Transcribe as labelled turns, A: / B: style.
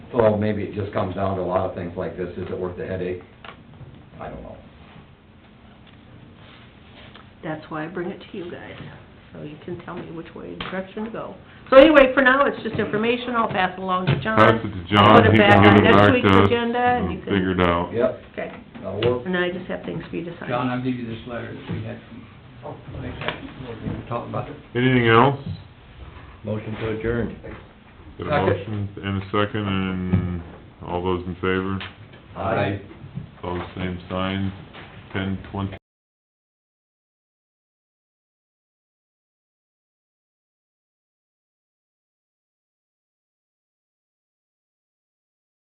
A: So maybe it just comes down to a lot of things like this, is it worth the headache? I don't know.
B: That's why I bring it to you guys, so you can tell me which way, direction to go. So anyway, for now, it's just information, I'll pass it along to John.
C: Pass it to John, he can give it back to us.
B: Put it back on next week's agenda, and you
C: and
B: can...
C: Figure it out.
A: Yep,
B: Okay,
A: that'll work.
B: and I just have things for you to sign.
D: John, I'll give you this letter that we had from, like that, what we were talking about.
C: Anything else?
E: Motion to adjourn.
C: Got
A: Second.
C: a motion and a second, and all those in favor,
A: Aye.
C: all the same sign, ten twenty.